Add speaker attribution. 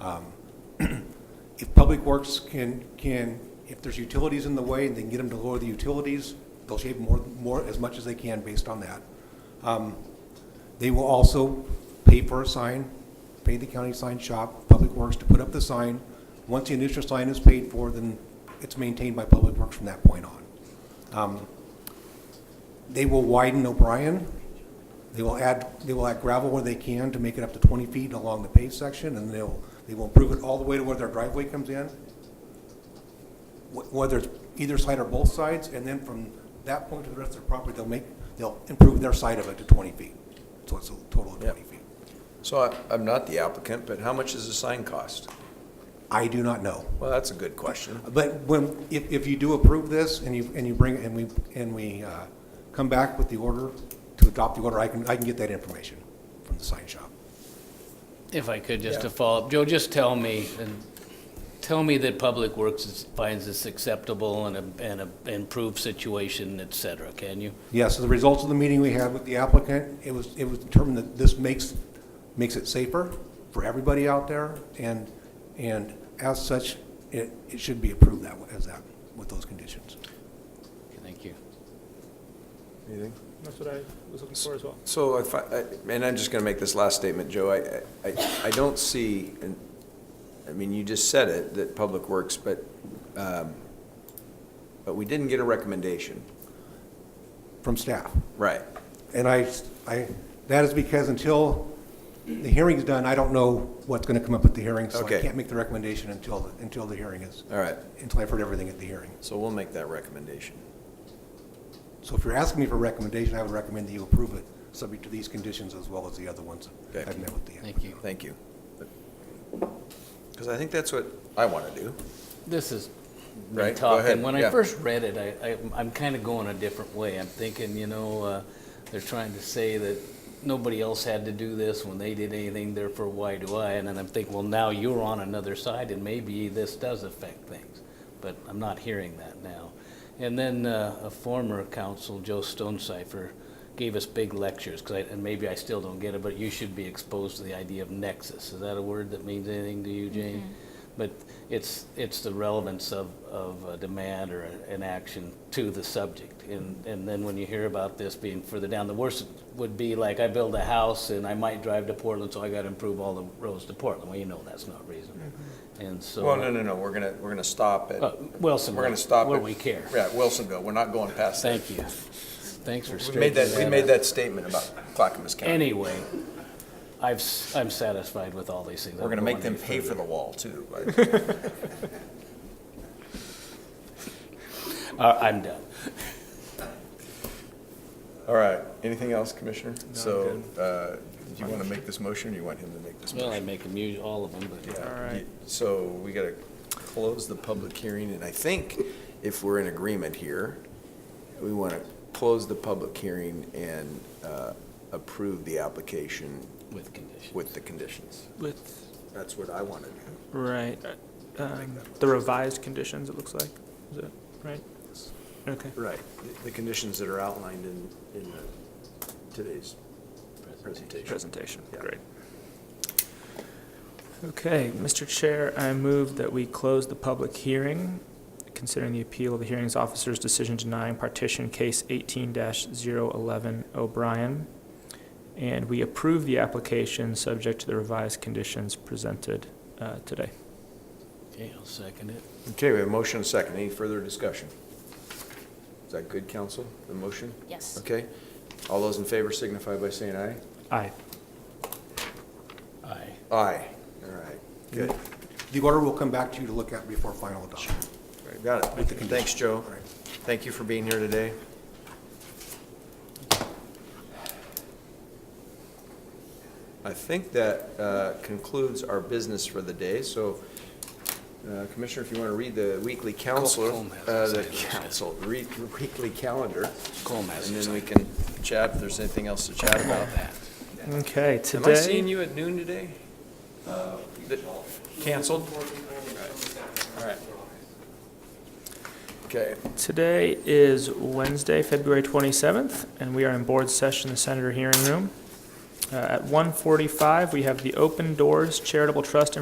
Speaker 1: Um, If Public Works can, can, if there's utilities in the way and they can get them to lower the utilities, they'll shave more, more, as much as they can based on that. Um, They will also pay for a sign, pay the county sign shop, Public Works to put up the sign. Once the initial sign is paid for, then it's maintained by Public Works from that point on. Um, They will widen O'Brien. They will add, they will add gravel where they can to make it up to 20 feet along the paved section, and they'll, they will improve it all the way to where their driveway comes in, wh- whether it's either side or both sides, and then from that point to the rest of the property, they'll make, they'll improve their side of it to 20 feet. So it's a total of
Speaker 2: Yeah.
Speaker 1: 20 feet.
Speaker 2: So I- I'm not the applicant, but how much does a sign cost?
Speaker 1: I do not know.
Speaker 2: Well, that's a good question.
Speaker 1: But when, if, if you do approve this and you, and you bring, and we, and we uh, come back with the order, to adopt the order, I can, I can get that information from the sign shop.
Speaker 3: If I could, just to
Speaker 2: Yeah.
Speaker 3: follow up, Joe, just tell me, and tell me that Public Works is- finds this acceptable and a, and a improved situation, et cetera, can you?
Speaker 1: Yes, so the results of the meeting we had with the applicant, it was, it was determined that this makes, makes it safer for everybody out there, and, and as such, it, it should be approved that, way- as that, with those conditions.
Speaker 3: Thank you.
Speaker 2: Anything?
Speaker 4: That's what I was looking for as well.
Speaker 2: So if I, I- and I'm just going to make this last statement, Joe, I- I, I don't see, and, I mean, you just said it, that Public Works, but, um, but we didn't get a recommendation.
Speaker 1: From staff.
Speaker 2: Right.
Speaker 1: And I, I, that is because until the hearing's done, I don't know what's gonna come up at the hearing, so I
Speaker 2: Okay.
Speaker 1: can't make the recommendation until, until the hearing is,
Speaker 2: All right,
Speaker 1: until I've heard everything at the hearing.
Speaker 2: so we'll make that recommendation.
Speaker 1: So if you're asking me for a recommendation, I would recommend that you approve it, subject to these conditions as well as the other ones that I've
Speaker 2: Okay.
Speaker 1: met with the
Speaker 3: Thank you.
Speaker 2: Thank you. Because I think that's what I want to do.
Speaker 3: This is
Speaker 2: Right,
Speaker 3: been
Speaker 2: go
Speaker 3: talk,
Speaker 2: ahead,
Speaker 3: and when I
Speaker 2: yeah.
Speaker 3: first read it, I, I, I'm kind of going a different way. I'm thinking, you know, uh, they're trying to say that nobody else had to do this when they did anything, therefore why do I? And then I'm thinking, well, now you're on another side and maybe this does affect things. But I'm not hearing that now. And then, uh, a former council, Joe Stonecipher, gave us big lectures, 'cause I, and maybe I still don't get it, but you should be exposed to the idea of nexus. Is that a word that means anything to you, Jane? But it's, it's the relevance of, of a demand or an action to the subject. And, and then when you hear about this being further down, the worst would be like, I build a house and I might drive to Portland, so I gotta improve all the roads to Portland. Well, you know that's not reasonable. And so.
Speaker 2: Well, no, no, no, we're going to, we're going to stop it.
Speaker 3: Uh, Wilson,
Speaker 2: We're going to stop it.
Speaker 3: where we care.
Speaker 2: Yeah, Wilsonville, we're not going past that.
Speaker 3: Thank you. Thanks for
Speaker 2: We made
Speaker 3: straightening that
Speaker 2: that, we made
Speaker 3: out.
Speaker 2: that statement about Clackamas County.
Speaker 3: Anyway, I've, s- I'm satisfied with all these things.
Speaker 2: We're gonna
Speaker 3: I'm
Speaker 2: make them
Speaker 3: going any
Speaker 2: pay for
Speaker 3: further.
Speaker 2: the wall too.
Speaker 3: Uh, I'm done.
Speaker 2: All right, anything else, Commissioner? So, uh, do you wanna make this motion, or you want him to make this
Speaker 3: Well, I
Speaker 2: motion?
Speaker 3: make them use all of them, but.
Speaker 2: Yeah,
Speaker 4: All right.
Speaker 2: So we gotta close the public hearing, and I think if we're in agreement here, we wanna close the public hearing and, uh, approve the application
Speaker 3: With conditions.
Speaker 2: with the conditions.
Speaker 4: With,
Speaker 2: That's what I wanna do.
Speaker 4: right, um, the revised conditions, it looks like, is it, right? Okay,
Speaker 2: Right, the- the conditions that are outlined in, in the- today's presentation.
Speaker 4: presentation,
Speaker 2: Yeah.
Speaker 4: great. Okay, Mr. Chair, I move that we close the public hearing considering the appeal of the hearings officer's decision denying partition case eighteen 11 O'Brien. And we approve the application subject to the revised conditions presented, uh, today.
Speaker 3: Okay, I'll second it.
Speaker 2: Okay, we have a motion and a second. Any further discussion? Is that good, counsel, the motion?
Speaker 5: Yes.
Speaker 2: Okay. All those in favor signify by saying aye.
Speaker 4: Aye.
Speaker 3: Aye.
Speaker 2: Aye. All right, good.
Speaker 1: The order will come back to you to look at before final adoption.
Speaker 2: All right, Got it. Thanks, Joe. Thank you for being here today. I think that uh, concludes our business for the day, so uh, Commissioner, if you want to read the weekly counselor,
Speaker 3: Colm has
Speaker 2: uh, the
Speaker 3: decided to-
Speaker 2: council, re- weekly calendar,
Speaker 3: Colm has
Speaker 2: and then we
Speaker 3: decided.
Speaker 2: can chat if there's anything else to chat about.
Speaker 4: Okay,
Speaker 2: Am
Speaker 4: today.
Speaker 2: I seeing you at noon today? Uh, Th- Canceled? All right. Okay.
Speaker 4: Today is Wednesday, February 27th, and we are in board session, the Senator Hearing Room. Uh, At 1:45, we have the Open Doors Charitable Trust